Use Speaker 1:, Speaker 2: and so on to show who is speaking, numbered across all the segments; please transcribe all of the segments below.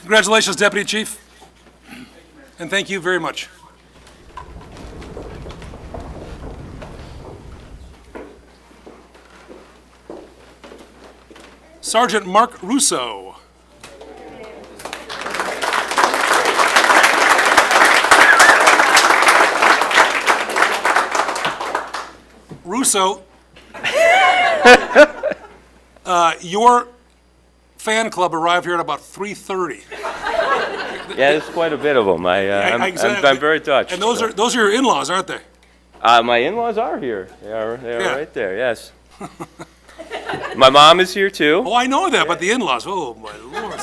Speaker 1: Congratulations, Deputy Chief. And thank you very much. Sergeant Mark Russo. Russo, uh, your fan club arrived here at about 3:30.
Speaker 2: Yeah, there's quite a bit of them. I, uh,
Speaker 1: I- I-
Speaker 2: I'm, I'm,
Speaker 1: exactly.
Speaker 2: I'm very touched.
Speaker 1: And those
Speaker 2: so.
Speaker 1: are, those are your in-laws, aren't they?
Speaker 2: Uh, my in-laws are here. They are. They are
Speaker 1: Yeah.
Speaker 2: right there. Yes. my mom is here too.
Speaker 1: Oh, I know that, but the in-laws, oh, my lord.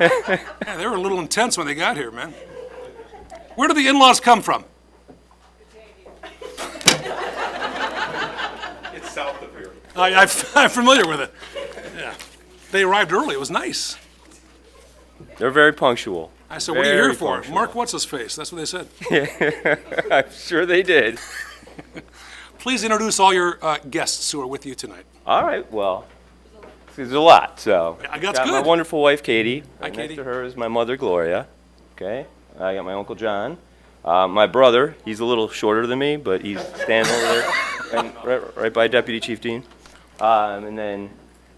Speaker 1: Yeah, they were a little intense when they got here, man. Where do the in-laws come from?
Speaker 3: It's south of here.
Speaker 1: I, I, I'm familiar with it. Yeah. They arrived early, it was nice.
Speaker 2: They're very punctual.
Speaker 1: I said, what are you here
Speaker 2: Very
Speaker 1: for?
Speaker 2: punctual.
Speaker 1: Mark what's-his-face, that's what they said.
Speaker 2: I'm sure they did.
Speaker 1: Please introduce all your uh, guests who are with you tonight.
Speaker 2: All right. Well, there's a lot. So
Speaker 1: I got
Speaker 2: got my
Speaker 1: good.
Speaker 2: wonderful wife Katie.
Speaker 1: Hi,
Speaker 2: and
Speaker 1: Katie.
Speaker 2: Next to her is my mother Gloria. Okay. I got my uncle John. Uh, my brother. He's a little shorter than me, but he's standing over there, and right, right by Deputy Chief Dean. Um, and then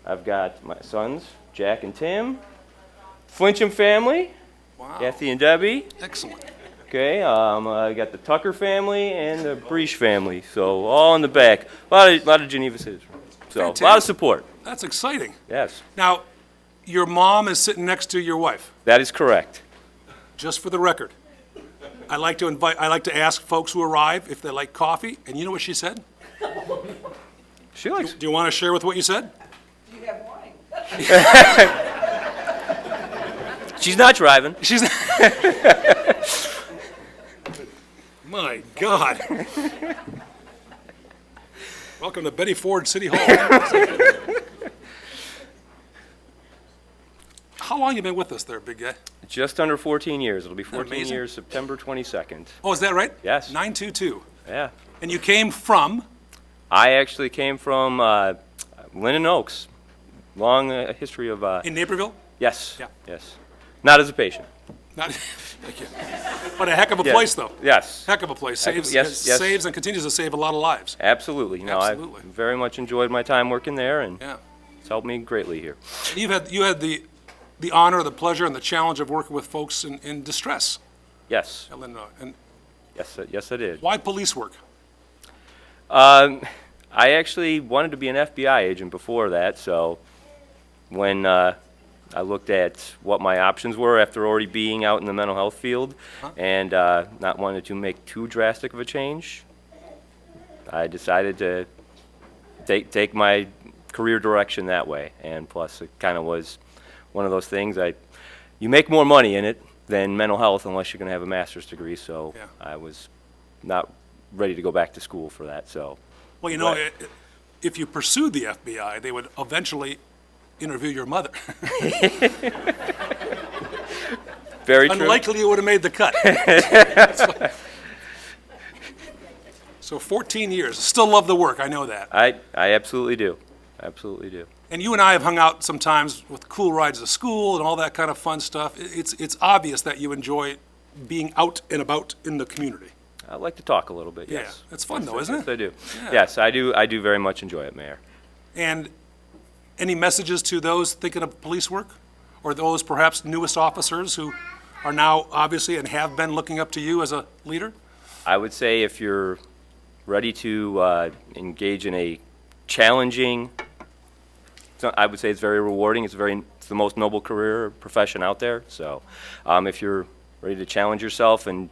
Speaker 2: I've got my sons Jack and Tim, Flincham family,
Speaker 1: Wow,
Speaker 2: Kathy and Debbie.
Speaker 1: excellent.
Speaker 2: Okay, um, I got the Tucker family and the Breach family, so all in the back. A lot of, lot of Geneva citizens, so a lot of
Speaker 1: Fantastic.
Speaker 2: support.
Speaker 1: That's exciting.
Speaker 2: Yes,
Speaker 1: Now, your mom is sitting next to your wife,
Speaker 2: that is correct.
Speaker 1: just for the record. I like to invite, I like to ask folks who arrive if they like coffee, and you know what she said?
Speaker 2: She likes.
Speaker 1: Do you want to share with what you said?
Speaker 4: You have wine.
Speaker 2: She's not driving.
Speaker 1: She's. My God. Welcome to Betty Ford City Hall. How long you been with us there, big guy?
Speaker 2: Just under 14 years. It'll be 14
Speaker 1: amazing?
Speaker 2: years, September 22nd.
Speaker 1: Oh, is that right?
Speaker 2: Yes.
Speaker 1: 922.
Speaker 2: Yeah.
Speaker 1: And you came from,
Speaker 2: I actually came from uh, Linden Oaks. Long uh, history of uh,
Speaker 1: in Naperville?
Speaker 2: yes,
Speaker 1: Yeah.
Speaker 2: yes. Not as a patient.
Speaker 1: Not, thank you. What a heck of a
Speaker 2: Yes.
Speaker 1: place, though.
Speaker 2: Yes.
Speaker 1: Heck of a place.
Speaker 2: Heck of-
Speaker 1: Saves,
Speaker 2: yes, yes.
Speaker 1: saves and continues to save a lot of lives.
Speaker 2: Absolutely. No,
Speaker 1: Absolutely.
Speaker 2: I very much enjoyed my time working there, and
Speaker 1: Yeah.
Speaker 2: it's helped me greatly here.
Speaker 1: You've had, you had the, the honor, the pleasure, and the challenge of working with folks in, in distress
Speaker 2: Yes.
Speaker 1: at Lindenau. And
Speaker 2: Yes, I- yes, I did.
Speaker 1: why police work?
Speaker 2: Um, I actually wanted to be an FBI agent before that, so when uh, I looked at what my options were after already being out in the mental health field and uh, not wanting to make too drastic of a change, I decided to take take my career direction that way. And plus, it kind of was one of those things. I you make more money in it than mental health unless you're going to have a master's degree. So
Speaker 1: Yeah.
Speaker 2: I was not ready to go back to school for that. So
Speaker 1: Well, you know,
Speaker 2: Right.
Speaker 1: i- i- if you pursued the FBI, they would eventually interview your mother.
Speaker 2: very true.
Speaker 1: Unlikely you would have made the cut. So 14 years. Still love the work, I know that.
Speaker 2: I I absolutely do, absolutely do.
Speaker 1: And you and I have hung out sometimes with cool rides to school and all that kind of fun stuff. I- It's, it's obvious that you enjoy being out and about in the community.
Speaker 2: I like to talk a little bit.
Speaker 1: Yeah,
Speaker 2: Yes,
Speaker 1: it's fun
Speaker 2: Yes,
Speaker 1: though, isn't
Speaker 2: yes,
Speaker 1: it?
Speaker 2: I do. Yes, I do. I do very much enjoy it, Mayor.
Speaker 1: And any messages to those thinking of police work? Or those perhaps newest officers who are now obviously and have been looking up to you as a leader?
Speaker 2: I would say if you're ready to uh, engage in a challenging, so- I would say it's very rewarding. It's very it's the most noble career or profession out there. So, um, if you're ready to challenge yourself and